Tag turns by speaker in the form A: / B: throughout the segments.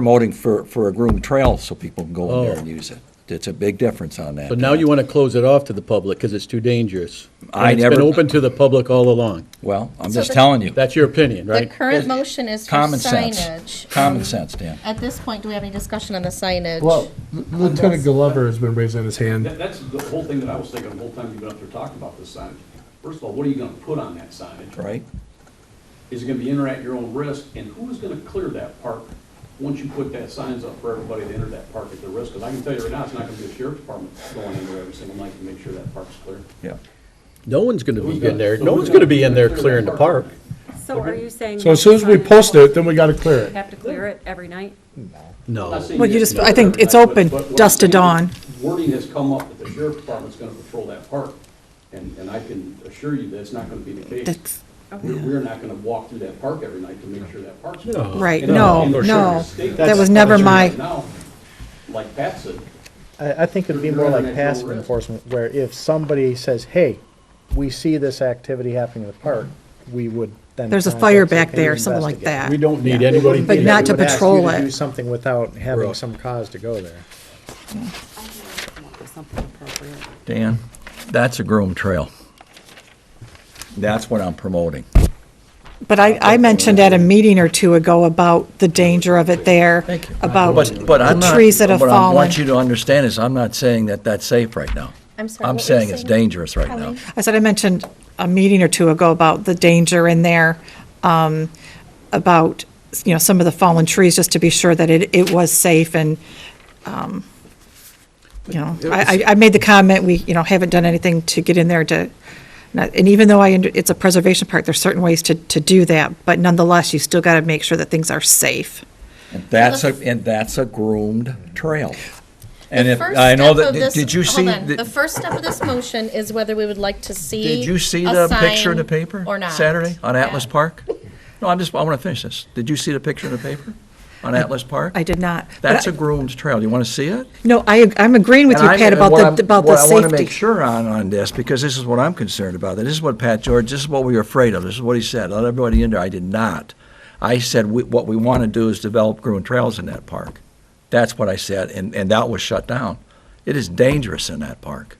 A: promoting for, for a groomed trail so people can go in there
B: Oh.
A: and use it. It's a big difference on that.
B: But now you want to close it off to the public because it's too dangerous.
A: I
B: And it's
A: never-
B: been open to the public all along.
A: Well, I'm
C: So
A: just
C: the-
A: telling you,
B: That's your opinion,
C: The
B: right?
C: current motion is for
A: common sense,
C: signage. Um,
A: common sense, Dan.
C: At this point, do we have any discussion on the signage?
D: Well, Lieutenant Glover has been raising his hand.
E: That, that's the whole thing that I was thinking the whole time you've been up there talking about this signage. First of all, what are you gonna put on that signage?
A: right?
E: Is it gonna be enter at your own risk, and who is gonna clear that park once you put that signs up for everybody to enter that park at their risk? Because I can tell you right now, it's not gonna be the sheriff's department going in there every single night to make sure that park's clear.
A: Yeah.
B: No one's going to
E: Who's
B: be
E: gonna-
B: in there,
E: so
B: no
E: who's
B: one's going to be in there
E: clear that
B: clearing the park.
F: So are you saying?
D: So as soon as we post it, then we gotta clear
F: We
D: it.
F: have to clear it every night?
E: I'm not
B: No.
E: saying
G: Well, you
E: have
G: just-
E: to do
G: I think
E: it
G: it's
E: every night,
G: open,
E: but- but what I'm
G: dusk to
E: saying is
G: dawn.
E: Wording has come up that the sheriff's department's gonna patrol that park, and, and I can assure you that's not gonna be the case.
G: That's-
E: We're, we're not gonna walk through that park every night to make sure that park's. clear.
G: Right,
E: And-
G: no,
E: and- and
G: no.
E: the state-
G: That was never my,
E: Now, like Pat said,
H: I, I think it'd be more like passive enforcement, where if somebody says, hey, we see this activity happening in the park, we would then.
G: There's a
H: contact,
G: fire
H: say,
G: back
H: "Can you
G: there," something like
H: investigate?"
G: that.
B: We don't need anybody.
G: But
H: We
B: being
G: not
B: there.
G: to
H: would ask you
G: patrol it.
H: Do something without having
B: Right.
H: some cause to go there.
F: Something appropriate.
A: Dan, that's a groomed trail. That's what I'm promoting.
G: but I, I mentioned at a meeting or two ago about the danger of it there,
A: Thank you.
C: Oh.
G: about
A: But, but I'm
G: the
A: not,
G: trees that have
A: what I
G: fallen.
A: want you to understand is I'm not saying that that's safe right now.
C: I'm sorry,
A: I'm
C: what were you
A: saying it's
C: saying?
A: dangerous right now.
C: Colleen?
G: I said I mentioned a meeting or two ago about the danger in there, um, about, you know, some of the fallen trees, just to be sure that it, it was safe and, um, you know, I, I I made the comment, we, you know, haven't done anything to get in there to, not- and even though I, under- it's a preservation park, there's certain ways to, to do that, but nonetheless, you still got to make sure that things are safe.
A: And that's a, and that's a groomed trail. And
C: The
A: if,
C: first
A: I know
C: step
A: that,
C: of this-
A: did you
C: hold
A: see?
C: on.
A: the-
C: The first step of this motion is whether we would like to see.
A: Did you see
C: a
A: the picture in the
C: sign
A: paper?
C: Or not.
A: Saturday on
C: Yeah.
A: Atlas Park? No, I'm just, I want to finish this. Did you see the picture in the paper on Atlas Park?
G: I did not. but
A: That's
G: I-
A: a groomed trail. You want to see it?
G: No, I, I'm agreeing with you,
A: And I'm-
G: Pat,
A: and what
G: about
A: I'm-
G: the, about the
A: what
G: safety.
A: I want to make sure on, on this, because this is what I'm concerned about. This is what Pat George, this is what we were afraid of. This is what he said. Let everybody in there. I did not. I said, we- what we want to do is develop groomed trails in that park. That's what I said, and, and that was shut down. It is dangerous in that park.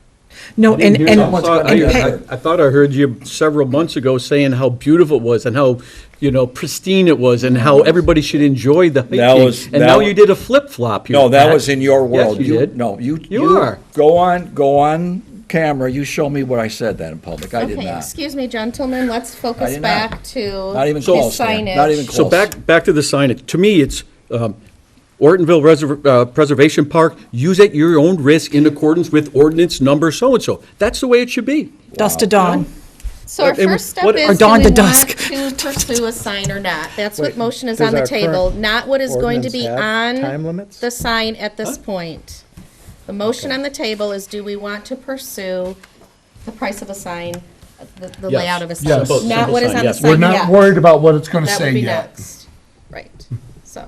G: No, and,
A: hear
G: and.
A: that. Someone's gonna
B: I-
G: and
A: get
G: Pat-
A: hurt.
B: I I thought I heard you several months ago saying how beautiful it was and how, you know, pristine it was and how everybody should enjoy the hiking.
A: That was-
B: And
A: that
B: now
A: wa-
B: you did a flip-flop. here,
A: No, that
B: Pat.
A: was in your world.
B: Yes, you did.
A: No, you.
B: You are.
A: Go on, go on camera. You show me what I said that in public. I did
C: Okay,
A: not.
C: excuse me, gentlemen, let's focus
A: did not.
C: back to.
A: Not even
C: the
A: close, Dan.
C: signage.
A: Not even
B: So
A: close.
B: back, back to the signage. To me, it's um, Ortonville Reserv- uh, Preservation Park, use at your own risk in accordance with ordinance number so-and-so. That's the way it should be.
G: Dusk to dawn.
C: So our
B: It was-
C: first step
B: what-
C: is,
G: Or
C: do
G: dawn
C: we
G: to
C: want
G: dusk.
C: to pursue a sign or not? That's what
H: Wait,
C: motion is
H: does
C: on the
H: our
C: table,
H: current
C: not what is going to
H: ordinance
C: be
H: have
C: on
H: time limits?
C: the sign at this point. The motion on the table is, do we want to pursue the price of a sign, the- the
B: Yes.
C: layout of a
D: Yes.
C: sign? Not
B: Simple
C: what is
B: sign,
C: on the
B: yes.
C: sign
D: We're
C: yet.
D: not worried about what it's gonna
C: That would
D: say
C: be
D: yet.
C: next. Right, so.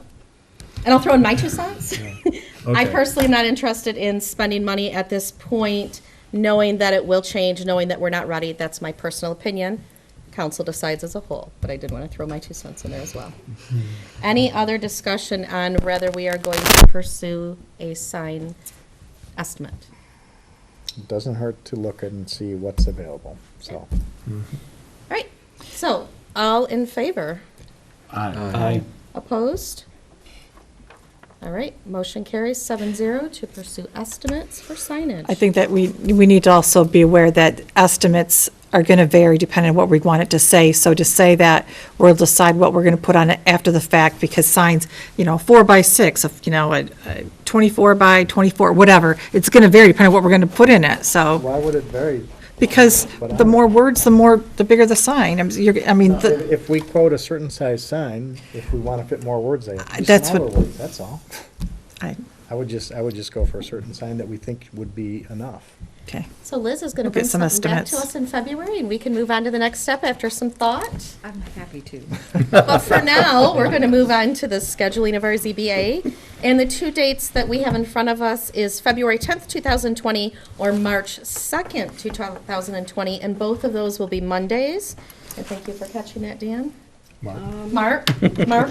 C: And I'll throw in my two cents. I personally am not interested in spending money at this point, knowing that it will change, knowing that we're not ready. That's my personal opinion. Council decides as a whole, but I did want to throw my two cents in there as well.
D: Hmm.
C: Any other discussion on whether we are going to pursue a sign estimate?
H: It Doesn't hurt to look and see what's available, so.
C: All right, so, all in favor?
B: Aye.
C: Opposed? All right, motion carries seven zero to pursue estimates for signage.
G: I think that we, we need to also be aware that estimates are going to vary depending on what we want it to say. So to say that we'll decide what we're going to put on it after the fact because signs, you know, four by six, you know, a- a 24 by 24, whatever, it's going to vary depending on what we're going to put in it, so.
H: Why would it vary?
G: Because the more words, the more, the bigger the sign. I'm- you're- I mean,
H: If
G: the-
H: if we quote a certain size sign, if we wanna fit more words, they have to be
G: Uh, That's what-
H: smaller words, that's all.
G: I-
H: I would just, I would just go for a certain sign that we think would be enough.
G: okay.
C: So Liz is going to
G: We'll
C: bring
G: get some
C: something back to
G: estimates.
C: us in February, and we can move on to the next step after some thought.
F: I'm happy to.
C: But for now, we're going to move on to the scheduling of our ZBA. And the two dates that we have in front of us is February 10th, 2020, or March 2nd, 2020, and both of those will be Mondays. And thank you for catching that, Dan. Mark, Mark.